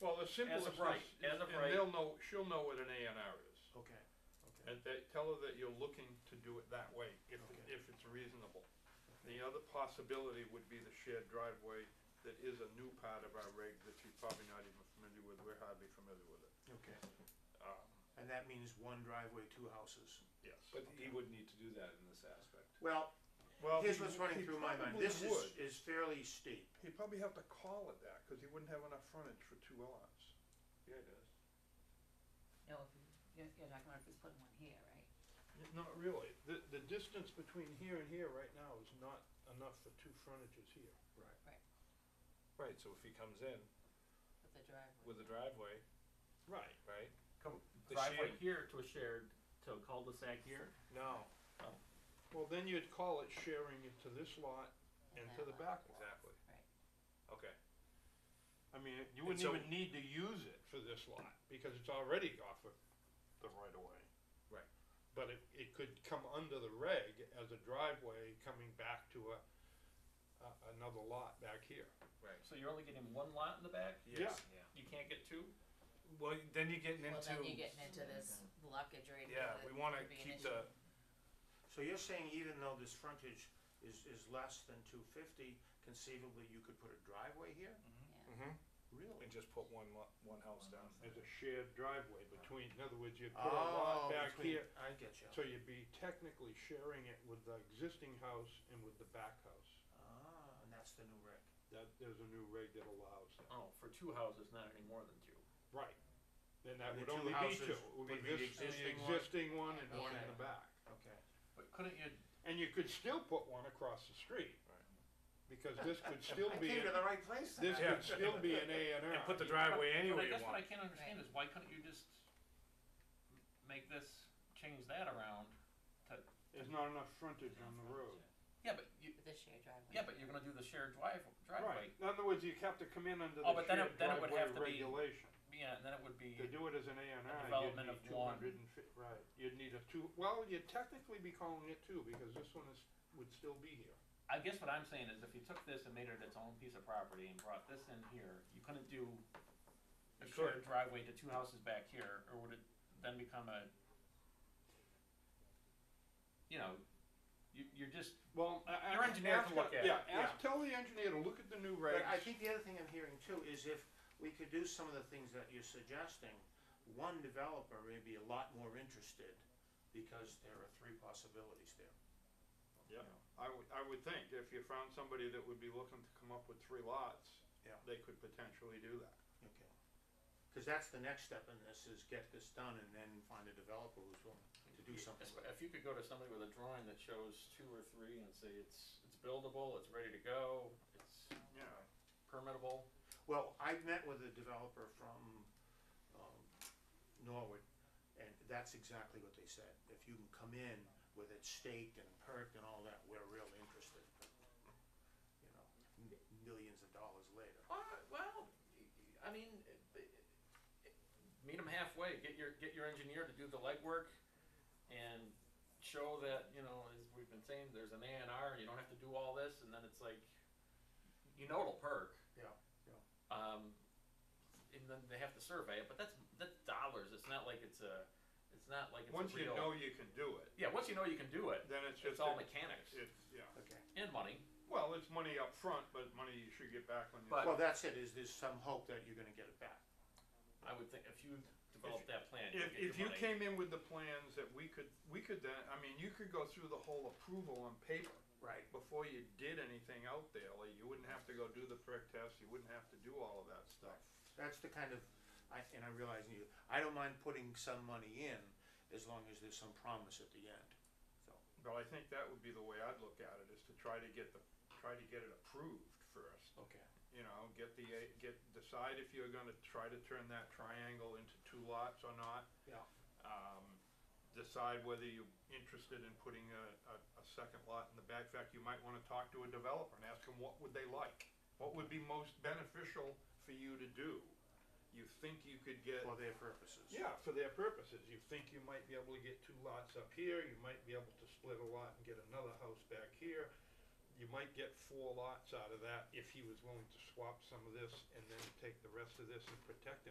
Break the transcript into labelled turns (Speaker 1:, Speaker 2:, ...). Speaker 1: Well, the simplest.
Speaker 2: of right,
Speaker 1: is-
Speaker 2: as of
Speaker 1: and
Speaker 2: right.
Speaker 1: they'll know, she'll know what an A and R is.
Speaker 3: Okay, okay,
Speaker 1: And they, tell her that you're looking to do it that way, if,
Speaker 3: Okay.
Speaker 1: if it's reasonable. The other possibility would be the shared driveway that is a new part of our rig that you're probably not even familiar with, we're hardly familiar with it.
Speaker 3: okay.
Speaker 1: Um,
Speaker 3: And that means one driveway, two houses.
Speaker 1: Yes.
Speaker 4: But he would need to do that in this aspect.
Speaker 3: Well,
Speaker 1: Well,
Speaker 3: here's
Speaker 1: he-
Speaker 3: what's running
Speaker 1: he
Speaker 3: through my mind.
Speaker 1: probably
Speaker 3: This is,
Speaker 1: would.
Speaker 3: is fairly steep.
Speaker 1: He'd probably have to call it that, cause he wouldn't have enough frontage for two lots.
Speaker 2: Yeah, it does.
Speaker 5: No, if you, you're, you're talking about if we put one here, right?
Speaker 1: N- Not really. The, the distance between here and here right now is not enough for two frontages here.
Speaker 4: Right.
Speaker 5: Right.
Speaker 4: Right, so if he comes in
Speaker 5: With the driveway.
Speaker 4: with a driveway,
Speaker 1: Right.
Speaker 4: right?
Speaker 2: Come,
Speaker 4: The
Speaker 2: driveway
Speaker 4: shared-
Speaker 2: here to a shared, to a cul-de-sac here.
Speaker 1: No.
Speaker 2: Oh.
Speaker 1: Well, then you'd call it sharing it to this lot and to
Speaker 5: that
Speaker 1: the
Speaker 5: lot.
Speaker 1: back lot.
Speaker 4: Exactly.
Speaker 5: Right.
Speaker 4: Okay.
Speaker 1: I mean, you
Speaker 4: And
Speaker 1: wouldn't
Speaker 4: so-
Speaker 1: even need to use it for this lot because it's already off of the right of way.
Speaker 4: Right.
Speaker 1: But it, it could come under the reg as a driveway coming back to a, a another lot back here.
Speaker 4: Right.
Speaker 2: So you're only getting one lot in the back?
Speaker 1: Yes.
Speaker 4: Yeah.
Speaker 2: You can't get two?
Speaker 4: Well, then you're getting
Speaker 5: Well,
Speaker 4: into.
Speaker 5: then you're getting into this blockage right here.
Speaker 4: Yeah,
Speaker 5: that
Speaker 4: we wanna
Speaker 5: could be an
Speaker 4: keep
Speaker 5: issue.
Speaker 4: the,
Speaker 3: So you're saying even though this frontage is, is less than two fifty, conceivably you could put a driveway here? Mm-hmm.
Speaker 5: Yeah.
Speaker 4: hmm
Speaker 3: Really?
Speaker 4: and just put one lo- one house down.
Speaker 1: As a shared driveway between, in other words, you'd put a lot
Speaker 3: Oh,
Speaker 1: back
Speaker 3: between-
Speaker 1: here.
Speaker 3: I get you.
Speaker 1: So you'd be technically sharing it with the existing house and with the back house.
Speaker 3: Ah, and that's the new reg.
Speaker 1: That, there's a new reg that allows that.
Speaker 2: Oh, for two houses, not any more than two.
Speaker 1: Right. Then that
Speaker 3: The
Speaker 1: would
Speaker 3: two
Speaker 1: only be
Speaker 3: houses
Speaker 1: two. It would be
Speaker 3: would be the
Speaker 1: this, and the
Speaker 3: existing one.
Speaker 1: existing one and one in the
Speaker 3: Okay.
Speaker 1: back.
Speaker 3: Okay.
Speaker 2: But couldn't you,
Speaker 1: And you could still put one across the street.
Speaker 4: Right.
Speaker 1: Because this could still
Speaker 3: I
Speaker 1: be,
Speaker 3: came to
Speaker 1: an-
Speaker 3: the right place
Speaker 1: this
Speaker 3: then.
Speaker 1: could still be an A and R.
Speaker 4: And put the driveway
Speaker 2: But- But I
Speaker 4: anywhere you
Speaker 2: guess what I
Speaker 4: want.
Speaker 2: can't understand is why couldn't you just m- make this, change that around to,
Speaker 1: There's not enough frontage on the road.
Speaker 2: yeah, but you,
Speaker 5: With the shared driveway.
Speaker 2: yeah, but you're gonna do the shared drive,
Speaker 1: Right.
Speaker 2: driveway.
Speaker 1: In other words, you have to come in under
Speaker 2: Oh,
Speaker 1: the
Speaker 2: but then it-
Speaker 1: shared
Speaker 2: then it would have
Speaker 1: driveway
Speaker 2: to be-
Speaker 1: regulation.
Speaker 2: Yeah, and then it would
Speaker 1: To
Speaker 2: be,
Speaker 1: do it as an A and
Speaker 2: A
Speaker 1: R, you'd
Speaker 2: development
Speaker 1: need
Speaker 2: of
Speaker 1: two
Speaker 2: one.
Speaker 1: hundred and fifty, right, you'd need a two, well, you'd technically be calling it two, because this one is, would still be here.
Speaker 2: I guess what I'm saying is if you took this and made it its own piece of property and brought this in here, you couldn't do a
Speaker 4: You
Speaker 2: shared
Speaker 4: could.
Speaker 2: driveway to two houses back here, or would it then become a, you know, you, you're just,
Speaker 1: Well, I- I-
Speaker 2: Your engineer
Speaker 1: ask-
Speaker 2: can look at it.
Speaker 1: Yeah, ask,
Speaker 3: Yeah.
Speaker 1: tell the engineer to look at the new regs.
Speaker 3: But I think the other thing I'm hearing too is if we could do some of the things that you're suggesting, one developer may be a lot more interested because there are three possibilities there.
Speaker 1: Yeah, I would, I would think if you found somebody that would be looking to come up with three lots,
Speaker 3: Yeah.
Speaker 1: they could potentially do that.
Speaker 3: Okay. Because that's the next step in this is get this done and then find a developer who's willing to do something with it.
Speaker 2: if you could go to somebody with a drawing that shows two or three and say it's, it's buildable, it's ready to go, it's
Speaker 1: Yeah.
Speaker 2: permittable.
Speaker 3: Well, I met with a developer from um, Norwood, and that's exactly what they said. If you can come in with it staked and perked and all that, we're real interested. But, You know, m- millions of dollars later.
Speaker 2: Uh, well, I mean, meet them halfway. Get your get your engineer to do the legwork, and show that you know as we've been saying, there's an A and R, and you don't have to do all this. And then it's like, you know, it'll perk.
Speaker 3: Yeah.
Speaker 2: Um, and then they have to survey it, but that's that's dollars. It's not like it's a, it's not like it's
Speaker 1: Once
Speaker 2: a
Speaker 1: you
Speaker 2: real,
Speaker 1: know you can do it,
Speaker 2: Yeah, once you know you can do it,
Speaker 1: then it's just.
Speaker 2: it's all mechanics
Speaker 1: It's, yeah,
Speaker 3: Okay.
Speaker 2: and money.
Speaker 1: well, it's money up front, but money you should get back when you.
Speaker 2: But-
Speaker 3: Well, that's it, is there's some hope that you're gonna get it back.
Speaker 2: I would think if you develop
Speaker 1: If-
Speaker 2: that plan, you'll
Speaker 1: If,
Speaker 2: get your
Speaker 1: if you
Speaker 2: money.
Speaker 1: came in with the plans that we could, we could then, I mean, you could go through the whole approval on paper
Speaker 3: Right.
Speaker 1: before you did anything out there, like you wouldn't have to go do the prick test, you wouldn't have to do all of that stuff.
Speaker 3: That's the kind of, I, and I realize you, I don't mind putting some money in as long as there's some promise at the end, so.
Speaker 1: But I think that would be the way I'd look at it, is to try to get the, try to get it approved first.
Speaker 3: Okay.
Speaker 1: you know, get the, uh, get, decide if you're gonna try to turn that triangle into two lots or not.
Speaker 3: Yeah.
Speaker 1: Um, Decide whether you're interested in putting a, a, a second lot in the back. In fact, you might wanna talk to a developer and ask them what would they like? What would be most beneficial for you to do? You think you could get,
Speaker 3: For their purposes.
Speaker 1: yeah, for their purposes, you think you might be able to get two lots up here, you might be able to split a lot and get another house back here. you might get four lots out of that if he was willing to swap some of this and then take the rest of this and protect it.